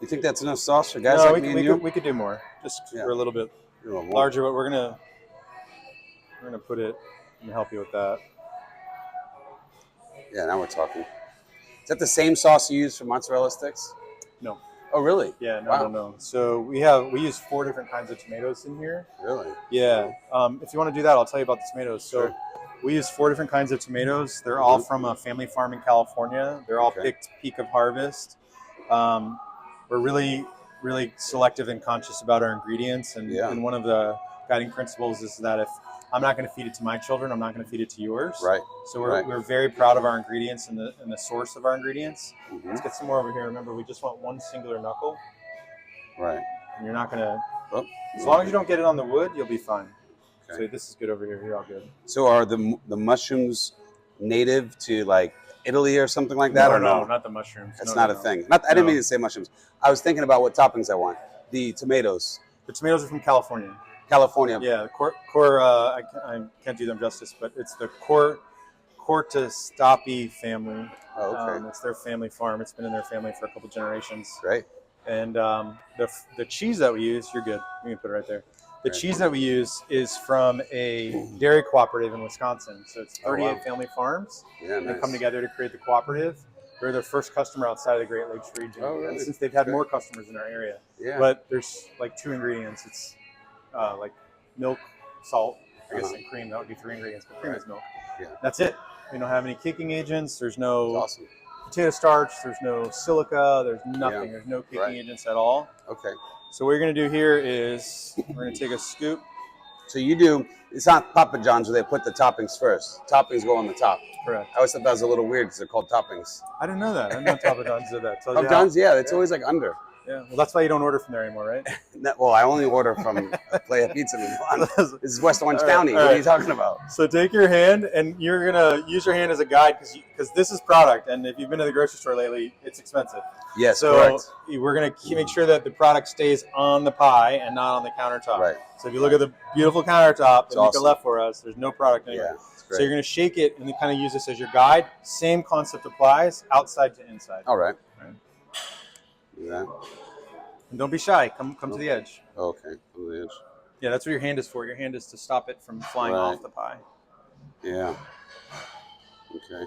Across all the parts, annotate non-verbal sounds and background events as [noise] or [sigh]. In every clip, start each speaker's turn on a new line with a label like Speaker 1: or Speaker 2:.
Speaker 1: You think that's enough sauce for guys
Speaker 2: no,
Speaker 1: like me
Speaker 2: we, could,
Speaker 1: and
Speaker 2: we,
Speaker 1: you? Oh,
Speaker 2: could, we could do more. Just
Speaker 1: Yeah.
Speaker 2: for a little bit
Speaker 1: You're a wolf.
Speaker 2: larger, but we're gonna we're gonna put it and help you with that.
Speaker 1: Yeah, now we're talking. Is that the same sauce you use for mozzarella sticks?
Speaker 2: No.
Speaker 1: Oh, really?
Speaker 2: Yeah, no,
Speaker 1: Wow.
Speaker 2: no, no. So we have we use four different kinds of tomatoes in here.
Speaker 1: Really?
Speaker 2: Yeah. Um, if you want to do that, I'll tell you about the tomatoes. So
Speaker 1: Sure.
Speaker 2: we use four different kinds of tomatoes. They're all
Speaker 1: Mhm.
Speaker 2: from a family farm in California. They're all
Speaker 1: Okay.
Speaker 2: picked peak of harvest. Um, we're really, really selective and conscious about our ingredients. And,
Speaker 1: Yeah.
Speaker 2: and one of the guiding principles is that if I'm not going to feed it to my children, I'm not going to feed it to yours.
Speaker 1: Right.
Speaker 2: So we're,
Speaker 1: right.
Speaker 2: we're very proud of our ingredients and the, and the source of our ingredients.
Speaker 1: Mhm.
Speaker 2: Let's get some more over here. Remember, we just want one singular knuckle.
Speaker 1: Right.
Speaker 2: And you're not going to,
Speaker 1: Oh.
Speaker 2: as long as you don't get it on the wood, you'll be fine.
Speaker 1: Okay.
Speaker 2: So this is good over here. You're all good.
Speaker 1: So are the the mushrooms native to like Italy or something like that,
Speaker 2: no,
Speaker 1: or no?
Speaker 2: no, not the mushrooms.
Speaker 1: That's
Speaker 2: No,
Speaker 1: not
Speaker 2: no,
Speaker 1: a
Speaker 2: no.
Speaker 1: thing. Not I didn't
Speaker 2: No.
Speaker 1: mean to say mushrooms. I was thinking about what toppings I want. The tomatoes,
Speaker 2: The tomatoes are from California.
Speaker 1: California.
Speaker 2: Yeah, the core, core uh, I, can't, I can't do them justice, but it's the core Cortestapi family.
Speaker 1: Oh, okay.
Speaker 2: Um, it's their family farm. It's been in their family for a couple generations.
Speaker 1: Great.
Speaker 2: And um, the, f- the cheese that we use, you're good. You can put it right there. The
Speaker 1: Right.
Speaker 2: cheese that we use is from a dairy cooperative in Wisconsin. So it's
Speaker 1: Oh,
Speaker 2: 38
Speaker 1: wow.
Speaker 2: family farms.
Speaker 1: Yeah,
Speaker 2: and
Speaker 1: nice.
Speaker 2: they come together to create the cooperative. They're their first customer outside of the Great Lakes region.
Speaker 1: Oh, really?
Speaker 2: And since they've had
Speaker 1: Good.
Speaker 2: more customers in our area,
Speaker 1: Yeah.
Speaker 2: but there's like two ingredients. It's uh, like milk, salt, I guess,
Speaker 1: Uh-huh.
Speaker 2: and cream. That would be three ingredients, but cream
Speaker 1: Right.
Speaker 2: is milk.
Speaker 1: Yeah.
Speaker 2: That's it. We don't have any kicking agents. There's
Speaker 1: That's
Speaker 2: no
Speaker 1: awesome.
Speaker 2: potato starch. There's no silica. There's nothing. There's no kicking
Speaker 1: Right.
Speaker 2: agents at all.
Speaker 1: Okay.
Speaker 2: So what you're gonna do here is we're gonna take a scoop.
Speaker 1: So you do. It's not Papa John's where they put the toppings first. Toppings go on the top.
Speaker 2: Correct.
Speaker 1: I always thought that was a little weird because they're called toppings.
Speaker 2: I didn't know that. I didn't know Papa John's did that. Tells
Speaker 1: Papa
Speaker 2: you how-
Speaker 1: John's, yeah, it's
Speaker 2: yeah.
Speaker 1: always like under.
Speaker 2: Yeah. Well, that's why you don't order from there anymore, right? [laughs]
Speaker 1: No, well, I only order from Playa Pizza in Milan. [laughs] This is West Orange
Speaker 2: All right,
Speaker 1: County.
Speaker 2: all
Speaker 1: What are you
Speaker 2: right.
Speaker 1: talking about?
Speaker 2: So take your hand, and you're gonna use your hand as a guide because because this is product, and if you've been to the grocery store lately, it's expensive.
Speaker 1: Yes,
Speaker 2: so
Speaker 1: correct.
Speaker 2: we're gonna ke- make sure that the product stays on the pie and not on the countertop.
Speaker 1: Right.
Speaker 2: So if you look at the beautiful countertop
Speaker 1: It's
Speaker 2: that Mika
Speaker 1: awesome.
Speaker 2: left for us, there's no product anywhere.
Speaker 1: Yeah, it's
Speaker 2: so you're
Speaker 1: great.
Speaker 2: gonna shake it and then kind of use this as your guide. Same concept applies outside to inside.
Speaker 1: All right.
Speaker 2: Right.
Speaker 1: Do that.
Speaker 2: And don't be shy. Come come to the edge.
Speaker 1: Okay. Over the edge.
Speaker 2: Yeah, that's what your hand is for. Your hand is to stop it from flying
Speaker 1: Right.
Speaker 2: off the pie.
Speaker 1: Yeah. Okay.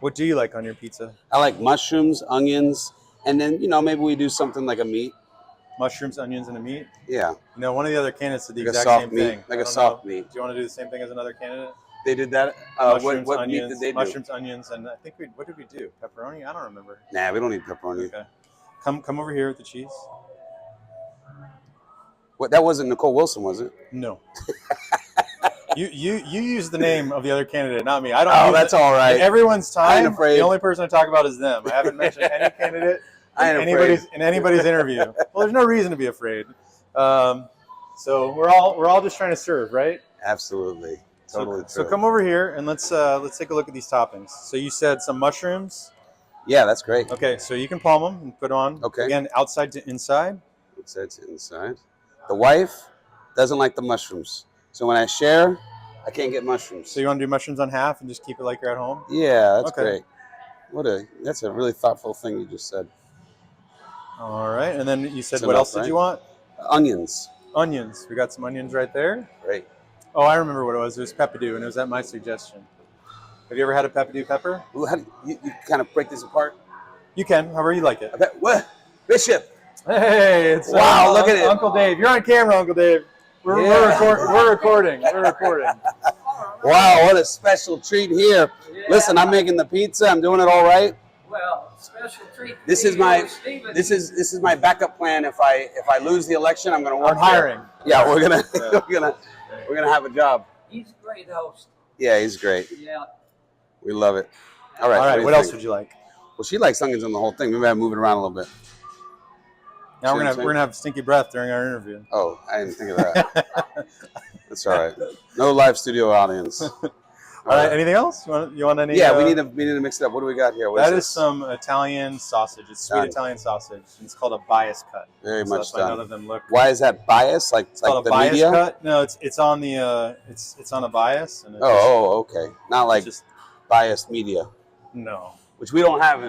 Speaker 2: What do you like on your pizza?
Speaker 1: I like mushrooms, onions, and then you know maybe we do something like a meat.
Speaker 2: Mushrooms, onions, and a meat.
Speaker 1: Yeah,
Speaker 2: You know, one of the other candidates did the
Speaker 1: like a
Speaker 2: exact
Speaker 1: soft
Speaker 2: same
Speaker 1: meat,
Speaker 2: thing. I
Speaker 1: like a
Speaker 2: don't
Speaker 1: soft
Speaker 2: know.
Speaker 1: meat.
Speaker 2: Do you want to do the same thing as another candidate?
Speaker 1: They did that. Uh, what
Speaker 2: mushrooms,
Speaker 1: what
Speaker 2: onions,
Speaker 1: meat did they do?
Speaker 2: mushrooms, onions, and I think we what did we do? Pepperoni? I don't remember.
Speaker 1: Nah, we don't need pepperoni.
Speaker 2: Okay. Come come over here with the cheese.
Speaker 1: What that wasn't Nicole Wilson, was it? [laughs]
Speaker 2: No. you you you use the name of the other candidate, not me. I don't.
Speaker 1: Oh,
Speaker 2: use
Speaker 1: that's
Speaker 2: it.
Speaker 1: all
Speaker 2: In
Speaker 1: right.
Speaker 2: everyone's
Speaker 1: I ain't
Speaker 2: time.
Speaker 1: afraid.
Speaker 2: The only person I talk about is them. I haven't mentioned any candidate
Speaker 1: I
Speaker 2: in
Speaker 1: ain't
Speaker 2: anybody's
Speaker 1: afraid.
Speaker 2: in
Speaker 1: [laughs]
Speaker 2: anybody's interview. Well, there's no reason to be afraid. Um, so we're all we're all just trying to serve, right?
Speaker 1: Absolutely,
Speaker 2: So-
Speaker 1: totally
Speaker 2: so,
Speaker 1: true.
Speaker 2: come over here and let's uh, let's take a look at these toppings. So you said some mushrooms.
Speaker 1: Yeah, that's great.
Speaker 2: Okay, so you can palm them and put on.
Speaker 1: Okay.
Speaker 2: Again, outside to inside.
Speaker 1: It says inside. The wife doesn't like the mushrooms, so when I share, I can't get mushrooms.
Speaker 2: So you want to do mushrooms on half and just keep it like you're at home.
Speaker 1: yeah, that's
Speaker 2: Okay.
Speaker 1: great. What a that's a really thoughtful thing you just said.
Speaker 2: All right, and then you said
Speaker 1: It's
Speaker 2: what
Speaker 1: enough,
Speaker 2: else did
Speaker 1: right?
Speaker 2: you want?
Speaker 1: Onions,
Speaker 2: Onions. We got some onions right there.
Speaker 1: great.
Speaker 2: Oh, I remember what it was. It was peppadew, and it was at my suggestion. Have you ever had a peppadew pepper?
Speaker 1: Well, How do you, you kind of break this apart?
Speaker 2: You can, however you like it.
Speaker 1: I bet, what? Bishop,
Speaker 2: Hey, it's uh,
Speaker 1: Wow, look at it.
Speaker 2: Uncle Dave. You're on camera, Uncle Dave. We're, we're,
Speaker 1: Yeah.
Speaker 2: record, we're recording.
Speaker 1: [laughs]
Speaker 2: We're recording.
Speaker 1: Wow, what a special treat here. Listen, I'm making the pizza. I'm doing it all right.
Speaker 3: Well, special treat. to
Speaker 1: This
Speaker 3: me,
Speaker 1: is my-
Speaker 3: Lord Stevens.
Speaker 1: This is this is my backup plan. If I if I lose the election, I'm gonna work.
Speaker 2: I'm hiring.
Speaker 1: here. Yeah, we're
Speaker 2: [laughs]
Speaker 1: gonna
Speaker 2: Yeah.
Speaker 1: we're gonna we're gonna have a job.
Speaker 3: He's a great host.
Speaker 1: Yeah, he's great.
Speaker 3: Yeah.
Speaker 1: We love it. All right.
Speaker 2: All right,
Speaker 1: do
Speaker 2: what
Speaker 1: you
Speaker 2: else
Speaker 1: think?
Speaker 2: would you like?
Speaker 1: Well, she likes onions on the whole thing. Maybe I move it around a little bit.
Speaker 2: Now
Speaker 1: See what
Speaker 2: we're
Speaker 1: I'm
Speaker 2: gonna
Speaker 1: saying?
Speaker 2: we're gonna have stinky breath during our interview.
Speaker 1: Oh, I didn't think of that.
Speaker 2: [laughs]
Speaker 1: That's all right. No live studio audience. All
Speaker 2: All right. Anything else? You want, you want any?
Speaker 1: yeah, we
Speaker 2: uh,
Speaker 1: need to we need to mix it up. What do we got here? What
Speaker 2: That is
Speaker 1: this?
Speaker 2: some Italian sausage. It's sweet
Speaker 1: Done.
Speaker 2: Italian sausage. It's called a bias cut.
Speaker 1: very
Speaker 2: So
Speaker 1: much
Speaker 2: that's why none
Speaker 1: done.
Speaker 2: of them look.
Speaker 1: Why is that bias? Like
Speaker 2: It's
Speaker 1: like
Speaker 2: called
Speaker 1: the
Speaker 2: a bias
Speaker 1: media?
Speaker 2: cut. No, it's it's on the uh, it's it's on a bias. And it's
Speaker 1: Oh, oh, okay. Not like
Speaker 2: just
Speaker 1: biased media,
Speaker 2: no.
Speaker 1: which we don't have